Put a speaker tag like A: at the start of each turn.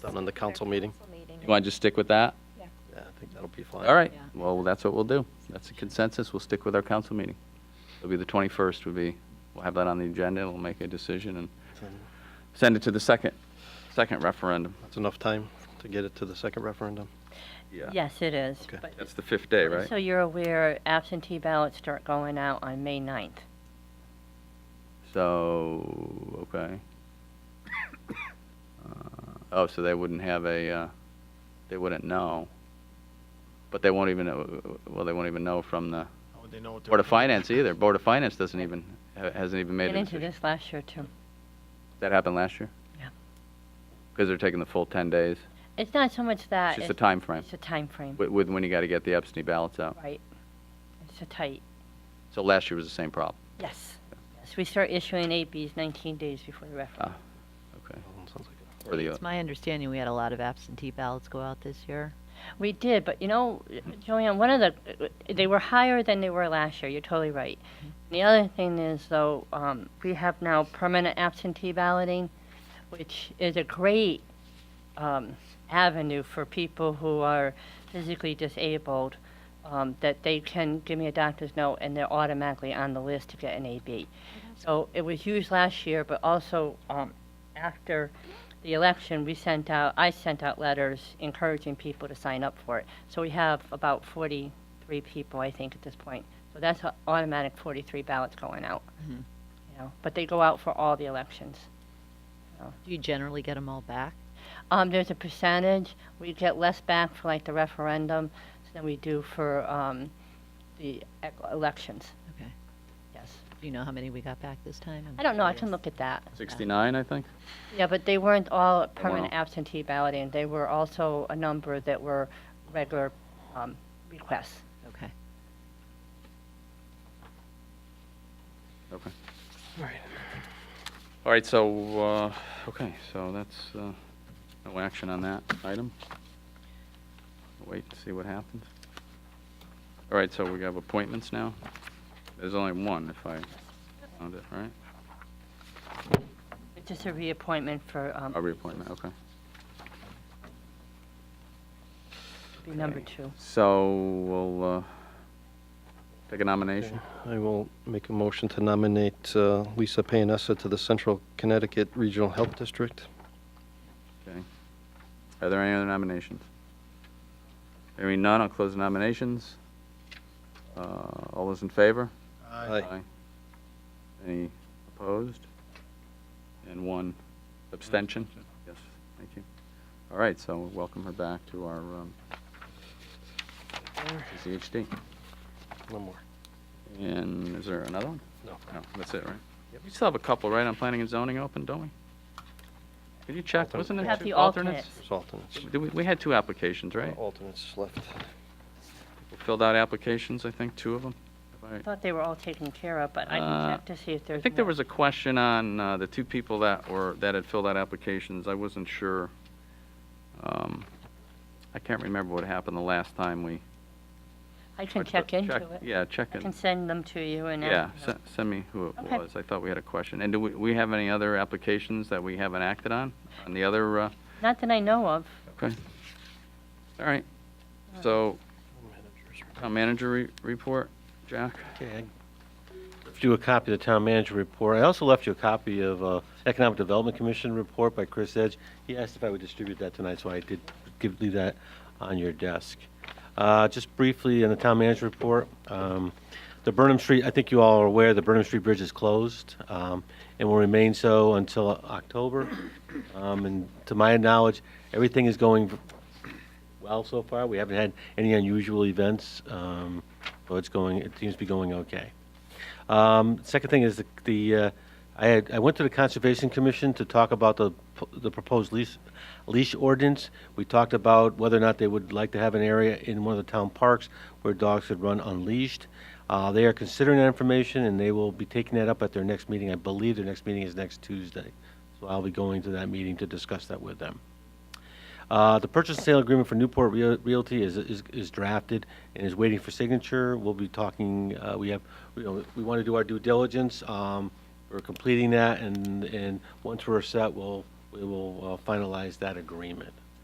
A: done on the council meeting.
B: meeting.
C: You want to just stick with that?
A: Yeah, I think that'll be fine.
C: All right,
B: Yeah.
C: well, that's what we'll do. That's a consensus, we'll stick with our council meeting. It'll be the 21st, would be, we'll have that on the agenda, we'll make a decision and send it to the second, second referendum.
A: That's enough time to get it to the second referendum.
D: Yes, it is.
A: Okay.
D: but-
C: That's the fifth day, right?
D: So you're aware absentee ballots start going out on May 9th.
C: So, okay. Uh, Oh, so they wouldn't have a, uh, they wouldn't know. But they won't even, know- well, they won't even know from the
E: How would they know what they're
C: Board of
E: voting?
C: Finance either. Board of Finance doesn't even, ha- hasn't even made
D: Get
C: a
D: into
C: decision.
D: this last year, too.
C: That happened last year?
D: Yeah.
C: Because they're taking the full 10 days.
D: It's not so much
C: It's
D: that.
C: just a timeframe
D: It's a timeframe,
C: with, with when you got to get the absentee ballots out.
D: right. It's a tight,
C: So last year was the same problem.
D: yes. Yes, we start issuing APs 19 days before the
C: Uh-huh.
D: referendum.
C: Okay.
A: Sounds like
C: Or the, uh,
B: It's my understanding we had a lot of absentee ballots go out this year.
D: We did, but you know, Joanne, one of the, they were higher than they were last year. You're totally right. The other thing is, though, um, we have now permanent absentee balloting, which is a great um, avenue for people who are physically disabled, um, that they can give me a doctor's note and they're automatically on the list to get an AB. So it was used last year, but also um, after the election, we sent out, I sent out letters encouraging people to sign up for it. So we have about 43 people, I think, at this point. So that's a- automatic 43 ballots going out.
B: Mhm.
D: You know, but they go out for all the elections.
B: Do you generally get them all back?
D: Um, there's a percentage. We get less back for like the referendum than we do for um, the ec- elections.
B: Okay.
D: Yes.
B: Do you know how many we got back this time? I'm
D: I don't know. I can
B: curious.
D: look at that.
C: 69, I think?
D: Yeah, but they weren't all permanent
C: all.
D: absentee balloting. They were also a number that were regular um, requests.
B: Okay.
C: Okay. All right, so, uh, okay, so that's, uh, no action on that item. Wait to see what happens. All right, so we have appointments now. There's only one, if I found it, right?
D: It's just a reappointment for um,
C: A reappointment, okay.
D: be number two.
C: So we'll uh, take a nomination.
A: I will make a motion to nominate uh, Lisa Payanessa to the Central Connecticut Regional Health District.
C: Okay. Are there any other nominations? Hearing none, I'll close the nominations. Uh, All those in favor?
A: Aye.
C: Any opposed? And one abstention? Yes, thank you. All right, so we'll welcome her back to our um, CCHD.
A: No more.
C: And is there another one?
A: No.
C: No, that's it, right?
A: Yep.
C: We still have a couple, right, on planning and zoning open, don't we? Can you check, wasn't
D: We
C: there
D: have
C: two
D: the
C: alternates?
D: alternates.
A: There's alternates.
C: Did We we had two applications, right?
A: Alternates left.
C: filled out applications, I think, two of them.
D: I thought they were all taken care of, but I
C: Uh,
D: can check to see if there's.
C: I think there
D: more.
C: was a question on uh, the two people that were, that had filled out applications. I wasn't sure. Um, I can't remember what happened the last time we.
D: I can check into it.
C: Yeah, check
D: I
C: in.
D: can send them to you and. ask
C: Yeah,
D: you.
C: se- send me who it
D: Okay.
C: was. I thought we had a question. And do we, we have any other applications that we haven't acted on? On the other, uh,
D: Not that I know of.
C: okay. All right. So, town manager re- report, Jack?
F: Okay, I left you a copy of the town manager report. I also left you a copy of uh, Economic Development Commission report by Chris Edge. He asked if I would distribute that tonight, so I did give, leave that on your desk. Uh, Just briefly, on the town manager report, um, the Burnham Street, I think you all are aware, the Burnham Street Bridge is closed um, and will remain so until October. Um, And to my knowledge, everything is going well so far. We haven't had any unusual events, um, so it's going, it seems to be going okay. Um, Second thing is the- the, uh, I had, I went to the Conservation Commission to talk about the p- the proposed leash leash ordinance. We talked about whether or not they would like to have an area in one of the town parks where dogs could run unleashed. Uh, They are considering that information, and they will be taking that up at their next meeting. I believe their next meeting is next Tuesday, so I'll be going to that meeting to discuss that with them. Uh, The purchase and sale agreement for Newport Real- Realty is- is is drafted and is waiting for signature. We'll be talking, uh, we have, you know, we want to do our due diligence. Um, We're completing that, and, and once we're set, we'll we will uh, finalize that agreement.